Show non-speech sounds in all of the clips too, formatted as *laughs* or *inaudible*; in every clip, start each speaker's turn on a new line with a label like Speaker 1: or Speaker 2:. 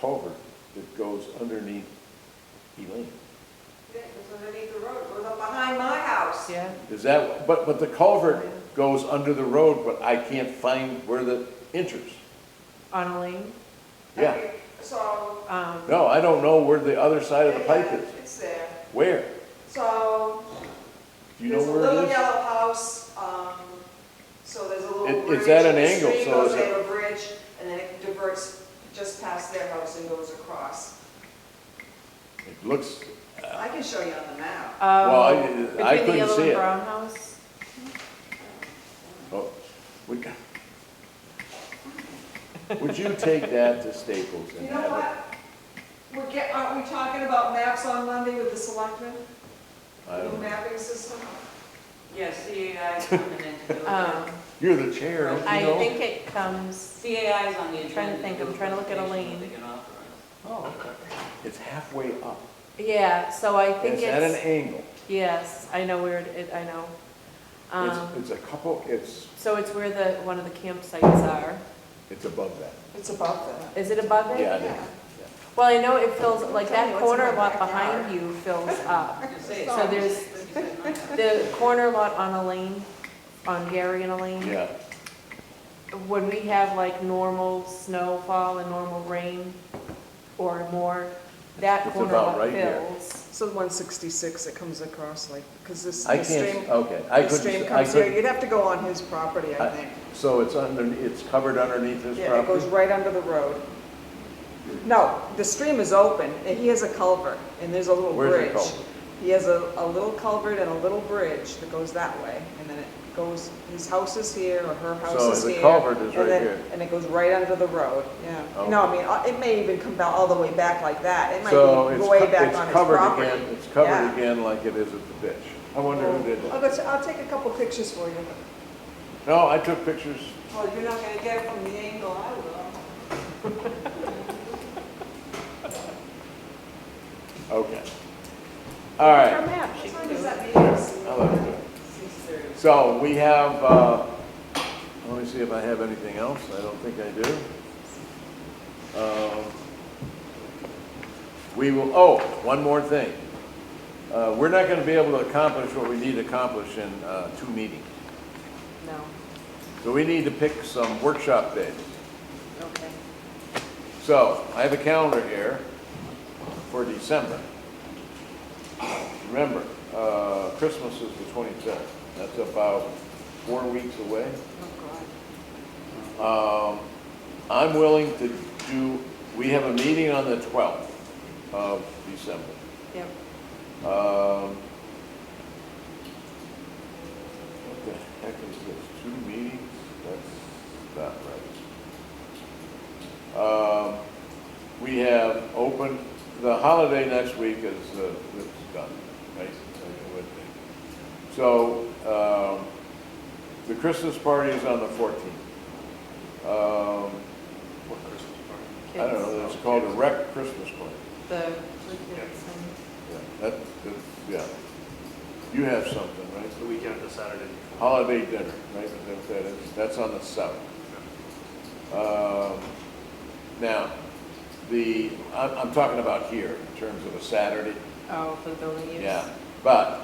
Speaker 1: culvert that goes underneath Elaine.
Speaker 2: Yeah, it goes underneath the road, it goes up behind my house.
Speaker 3: Yeah,
Speaker 1: Is that, but, but the culvert goes under the road, but I can't find where the enters.
Speaker 3: on a lane,
Speaker 1: Yeah,
Speaker 2: Okay, So.
Speaker 3: um,
Speaker 1: no, I don't know where the other side of the pipe
Speaker 2: yeah,
Speaker 1: is.
Speaker 2: It's there.
Speaker 1: Where?
Speaker 2: So,
Speaker 1: Do you know
Speaker 2: there's a
Speaker 1: where
Speaker 2: little
Speaker 1: it is?
Speaker 2: yellow house, um, so there's a little
Speaker 1: It-
Speaker 2: bridge.
Speaker 1: it's at an
Speaker 2: and the
Speaker 1: angle,
Speaker 2: stream
Speaker 1: so
Speaker 2: goes
Speaker 1: is it-
Speaker 2: over a bridge, and then it diverts just past their house and goes across.
Speaker 1: It looks,
Speaker 2: I can show you on the map.
Speaker 1: Well, I- I
Speaker 3: um, between
Speaker 1: couldn't
Speaker 3: the yellow
Speaker 1: see
Speaker 3: and
Speaker 1: it.
Speaker 3: brown house.
Speaker 1: oh, we got. Would you take that to Staples
Speaker 2: You
Speaker 1: and
Speaker 2: know
Speaker 1: have
Speaker 2: what? We're get, aren't we talking about maps on Monday with the selectmen?
Speaker 1: it? I
Speaker 2: The
Speaker 1: don't know.
Speaker 2: mapping system?
Speaker 4: Yeah, CAI is coming into
Speaker 3: Um,
Speaker 4: it.
Speaker 1: You're the chair, don't you
Speaker 3: I
Speaker 1: know?
Speaker 3: think it comes,
Speaker 4: CAI is on the agenda.
Speaker 3: Trying to think, I'm trying to look at a lane.
Speaker 4: They can offer us.
Speaker 1: Oh, okay. It's halfway up.
Speaker 3: yeah, so I think
Speaker 1: It's at an
Speaker 3: it's,
Speaker 1: angle.
Speaker 3: yes, I know where it- it, I know.
Speaker 1: It's,
Speaker 3: Um,
Speaker 1: it's a couple, it's,
Speaker 3: so it's where the, one of the campsites are.
Speaker 1: it's above that.
Speaker 2: It's above that.
Speaker 3: Is it
Speaker 5: Oh,
Speaker 3: above it?
Speaker 1: Yeah, it is.
Speaker 3: Well, I know it fills, like
Speaker 2: Tell me
Speaker 3: that
Speaker 2: what's in
Speaker 3: corner
Speaker 2: my
Speaker 3: lot
Speaker 2: backyard.
Speaker 3: behind you fills up.
Speaker 4: You say it.
Speaker 3: So there's-
Speaker 4: You said it, not us.
Speaker 3: The corner lot on Elaine, on Gary and Elaine.
Speaker 1: Yeah,
Speaker 3: when we have like normal snowfall and normal rain or more, that
Speaker 1: It's
Speaker 3: corner
Speaker 1: about
Speaker 3: lot
Speaker 1: right here.
Speaker 3: fills.
Speaker 5: So 166, it comes across like, because this,
Speaker 1: I
Speaker 5: the stream,
Speaker 1: can't, okay, I
Speaker 5: the stream
Speaker 1: couldn't, I
Speaker 5: comes here,
Speaker 1: couldn't,
Speaker 5: you'd have to go on his property, I
Speaker 1: I-
Speaker 5: think.
Speaker 1: so it's under, it's covered underneath his
Speaker 5: Yeah, it goes
Speaker 1: property?
Speaker 5: right under the road. No, the stream is open, and he has a culvert, and there's a little
Speaker 1: Where's the
Speaker 5: bridge.
Speaker 1: culvert?
Speaker 5: He has a, a little culvert and a little bridge that goes that way, and then it goes, his house is here, or her
Speaker 1: So
Speaker 5: house is
Speaker 1: the
Speaker 5: here.
Speaker 1: culvert is
Speaker 5: and
Speaker 1: right
Speaker 5: then-
Speaker 1: here. Oh.
Speaker 5: And it goes right under the road, yeah. No, I mean, uh, it may even come down all the way back like that, it might
Speaker 1: So
Speaker 5: be
Speaker 1: it's,
Speaker 5: way
Speaker 1: co-
Speaker 5: back
Speaker 1: it's
Speaker 5: on his
Speaker 1: covered
Speaker 5: property.
Speaker 1: again, it's
Speaker 5: Yeah. Oh.
Speaker 1: covered again like it is at the ditch. I wonder who did
Speaker 5: I'll
Speaker 1: that.
Speaker 5: go, t- I'll take a couple pictures for you.
Speaker 1: No, I took pictures,
Speaker 2: Well, Oh, you're not gonna get it from the angle I will.
Speaker 1: okay. All right,
Speaker 2: What time does that meeting?
Speaker 1: I'll have to.
Speaker 4: Six thirty.
Speaker 1: So we have, uh, let me see if I have anything else. I don't think I do. Um, We will, oh, one more thing. Uh, We're not going to be able to accomplish what we need to accomplish in uh, two meetings.
Speaker 3: No,
Speaker 1: So we need to pick some workshop days.
Speaker 3: okay.
Speaker 1: So I have a calendar here for December. Remember, uh, Christmas is the 25th. That's about four weeks away.
Speaker 3: Oh,
Speaker 1: Um, I'm willing to do, we have a meeting on the 12th of December.
Speaker 3: Yep,
Speaker 1: Um, What the heck is this, two meetings? That's not right. Um, We have open, the holiday next week is, uh, it's done, right? So, um, the Christmas party is on the 14th. Um,
Speaker 6: What Christmas party?
Speaker 1: I don't know,
Speaker 3: kids,
Speaker 1: it's called a rec Christmas party.
Speaker 3: the, the kids and-
Speaker 1: Yeah, that, that, yeah. You have something, right?
Speaker 6: It's the weekend, the Saturday before.
Speaker 1: Holiday dinner, right, is that what that is? That's on the seventh. Um, Now, the, I'm, I'm talking about here, in terms of a Saturday,
Speaker 3: oh, for the building use.
Speaker 1: yeah. But,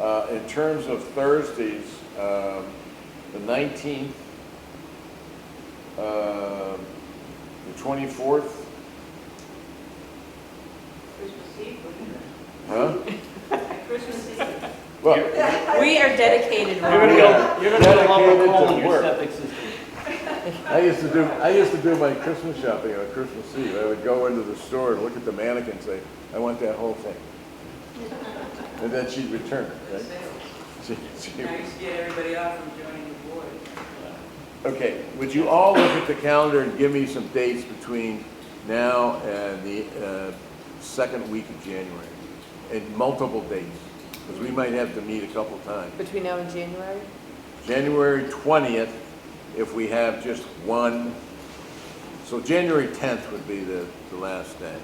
Speaker 1: uh, in terms of Thursdays, um, the nineteenth, um, the twenty-fourth,
Speaker 4: Christmas Eve, wouldn't
Speaker 6: *laughs*
Speaker 1: huh?
Speaker 4: it? Christmas Eve.
Speaker 1: Look,
Speaker 3: We are dedicated,
Speaker 6: You're gonna
Speaker 3: Ron.
Speaker 6: go, you're gonna go lumber
Speaker 1: Dedicated to
Speaker 6: coal in your
Speaker 1: work.
Speaker 6: septic system.
Speaker 1: I used to do, I used to do my Christmas shopping on Christmas Eve. I would go into the store and look at the mannequin and say, I want that whole thing. And then she'd return it, right? She- she-
Speaker 4: Now you should get everybody off from joining the board.
Speaker 1: Okay, would you all look at the calendar and give me some dates between now and the uh, second week of January? And multiple dates, because we might have to meet a couple times.
Speaker 3: Between now and January,
Speaker 1: January 20th, if we have just one, so January 10th would be the, the last day.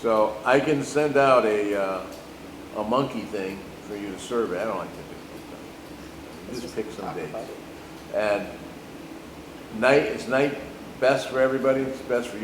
Speaker 1: So I can send out a, uh, a monkey thing for you to survey, I don't like to do it. Just pick some dates. And night, is night best for everybody, it's best for you.